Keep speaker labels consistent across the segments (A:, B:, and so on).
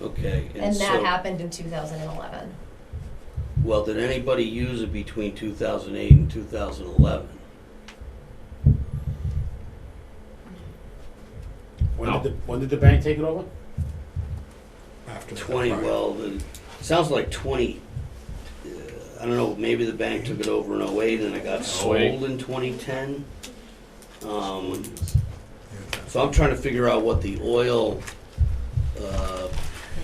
A: Okay.
B: And that
A: so-
B: happened in two thousand and eleven.
A: Well, did anybody use it between 2008 and 2011?
C: When
D: No.
C: did the, when did the bank take it over?
E: after that,
A: 20,
E: right.
A: well, the- sounds like 20, uh, I don't know, maybe the bank took it over in 08 and it got sold
D: 08.
A: in 2010. Um,
E: Yeah.
A: So I'm trying to figure out what the oil, uh,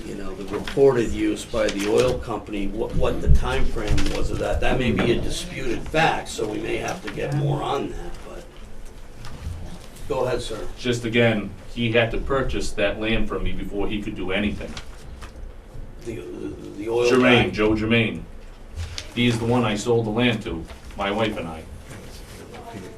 A: you know, the reported use by the oil company, what, what the frame was of that. That may be a disputed fact, so we may have to get more on that, but. Go ahead, sir.
D: Just again, he had to purchase that land from me before he could do anything.
A: The, the- the oil.
D: Jermaine,
A: guy.
D: Joe Jermaine. He is the one I sold the land to, my wife and I.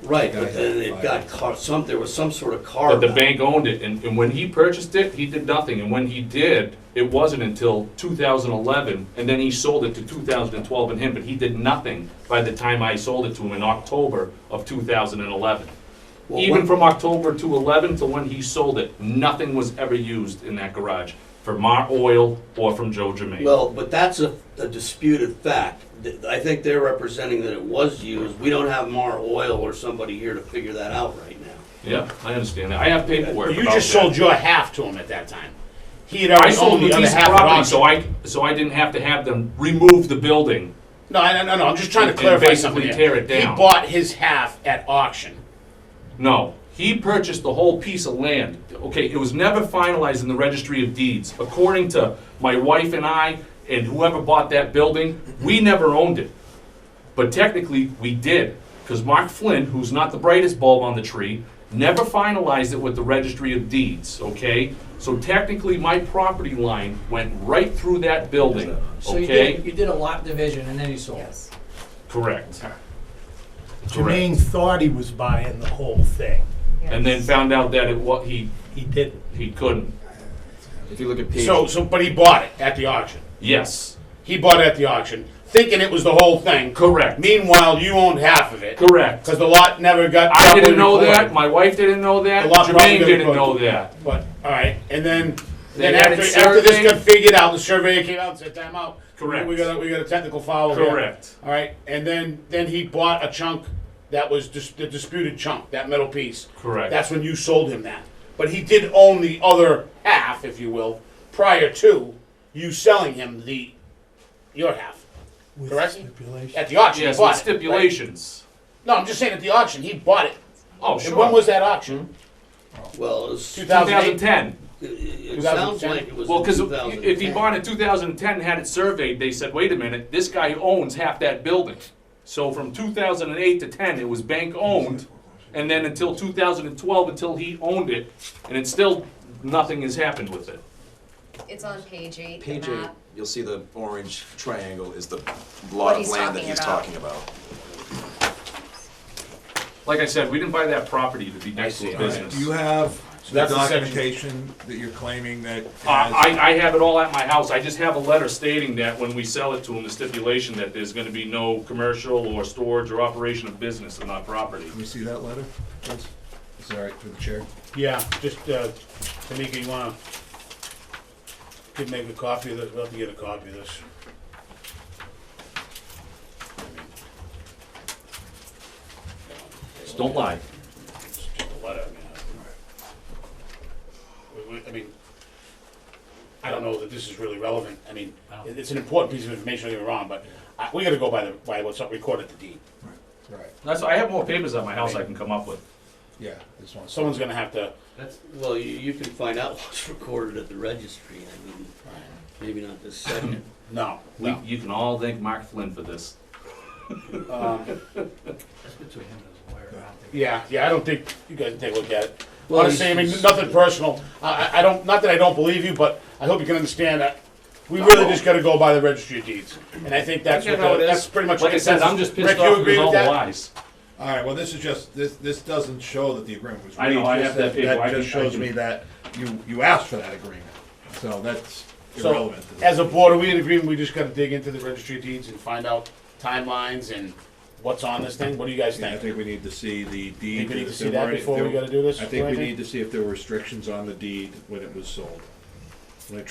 A: Right, but then it got caught, some, there was some sort of car.
D: But the bank owned it, and, and when he purchased it, he did nothing, and when he did, it wasn't until two thousand eleven, and then he sold it to two thousand and twelve and him, but he did nothing by the time I sold it to him in October of two thousand and eleven.
A: Well,
D: Even
A: what-
D: from October to eleven to when he sold it, nothing was ever used in that garage for my oil or from Joe Jermaine.
A: Well, but that's a a disputed fact. Th- I think they're representing that it was used. We don't have Mar Oil or somebody here to figure that out right now.
D: Yeah, I understand that. I have paperwork
C: You
D: about
C: just
D: that.
C: sold your half to him at that time. He had
D: I
C: already
D: sold
C: owned
D: the
C: the other
D: piece of
C: half at
D: property,
C: auction.
D: so I, so I didn't have to have them remove the building.
C: No, I- no, no, I'm just trying to
D: And
C: clarify
D: basically
C: something. here.
D: tear it down.
C: He bought his half at auction.
D: No, he purchased the whole piece of land. Okay, it was never finalized in the registry of deeds. According to my wife and I, and whoever bought that building, we never owned it. But technically, we did, because Mark Flynn, who's not the brightest bulb on the tree, never finalized it with the registry of deeds, okay? So technically, my property line went right through that building,
F: So you did,
D: okay?
F: you did a lot division and then you sold.
B: Yes.
D: Correct.
E: Jermaine thought he was buying the whole thing.
D: And then found out that it, what, he,
E: He didn't.
D: he couldn't.
G: If you look at page,
C: So, so, but he bought it at the auction.
D: Yes,
C: He bought it at the auction, thinking it was the whole thing.
D: correct,
C: Meanwhile, you owned half of it,
D: correct.
C: because the lot never got.
D: I
C: properly
D: didn't know that.
C: recorded.
D: My wife didn't know that.
C: The lot probably
D: Jermaine
C: got
D: didn't know
C: recorded.
D: that.
C: But, all right, and then,
D: They
C: then
D: had
C: after,
D: it
C: after this
D: surveyed.
C: got figured out, the surveyor came out and said, time out.
D: Correct.
C: We got, a- we got a technical foul here.
D: Correct.
C: All right, and then, then he bought a chunk that was dis- the disputed chunk, that metal piece.
D: Correct.
C: That's when you sold him that. But he did own the other half, if you will, prior to you selling him the, your half,
E: With
C: Correct.
E: stipulation.
C: at the auction. he
D: Yes,
C: bought
D: with
C: it, right?
D: stipulations.
C: No, I'm just saying at the auction, he bought it. And
D: Oh,
C: when
D: sure. Hmm?
C: was that auction?
A: Well, it's-
C: 2008?
D: 2010.
A: it sounds
C: 2010?
A: like it was
D: Well,
A: in
D: because
A: 2010.
D: if he bought it in 2010 and had it surveyed, they said, wait a minute, this guy owns half that building. So from 2008 to 10, it was bank owned. And then until 2012, until he owned it, and it's still, nothing has happened with it.
B: It's on page eight, the
G: page eight,
B: map.
G: you'll see the orange triangle is the
B: What
G: lot of
B: he's
G: land that
B: talking
G: he's
B: about.
G: talking about.
D: Like I said, we didn't buy that property to be next to a business.
E: Do you have the
C: that's the section.
E: documentation that you're claiming that?
D: Uh,
E: has-
D: I, I have it all at my house, I just have a letter stating that when we sell it to them, the stipulation that there's gonna be no commercial or storage or operation of business on that property.
E: Can we see that letter? please? Is that all right for the chair?
C: Yeah, just, uh, Tamika, you wanna, could make a copy of this, we'll have to get a copy of this.
D: Just don't lie.
C: It's just a letter, I mean, I- we- we- I mean, I don't know that this is really relevant, I mean, it- it's an important piece of information, don't get me wrong, but I, we gotta go by the, by what's up recorded at the deed.
E: All right,
D: That's, I have more papers at my house I can come up with.
E: yeah, this one.
C: Someone's gonna have to,
A: Well, you, you can find out what's recorded at the registry. I mean, maybe not this second.
C: no,
D: We,
C: no.
D: you can all thank Mark Flynn for this.
C: Um,
F: That's between him and his lawyer. I don't think-
C: Yeah, yeah, I don't think you guys can take a look at it.
A: Well,
C: Honestly, I mean,
A: he's-
C: nothing personal. I, I- I don't, not that I don't believe you, but I hope you can understand that we really just gotta go by the registry of deeds. And I think that's
D: I get
C: what,
D: how
C: the-
D: it is.
C: that's pretty much.
D: Like I said, I'm
C: consensus.
D: just pissed
C: Rick, you
D: off
C: agree
D: because
C: with
D: all the
C: that?
D: lies.
E: All right, well, this is just, this, this doesn't show that the agreement was
D: I
E: reached.
D: know, I
E: just
D: have that paper, I
E: That just
D: can- I
E: shows
D: can-
E: me that you, you asked for that agreement, so that's
C: So,
E: irrelevant. to this.
C: as a board, are we in agreement, we just gotta dig into the registry of deeds and find out timelines and what's on this thing? What do you guys
E: Yeah, I
C: think?
E: think we need to see the deed.
C: Think we need to
E: if
C: see
E: there
C: that
E: were any- if
C: before
E: there-
C: we gotta do this,
E: I think we
C: Brandon?
E: need to see if there were restrictions on the deed when it was sold.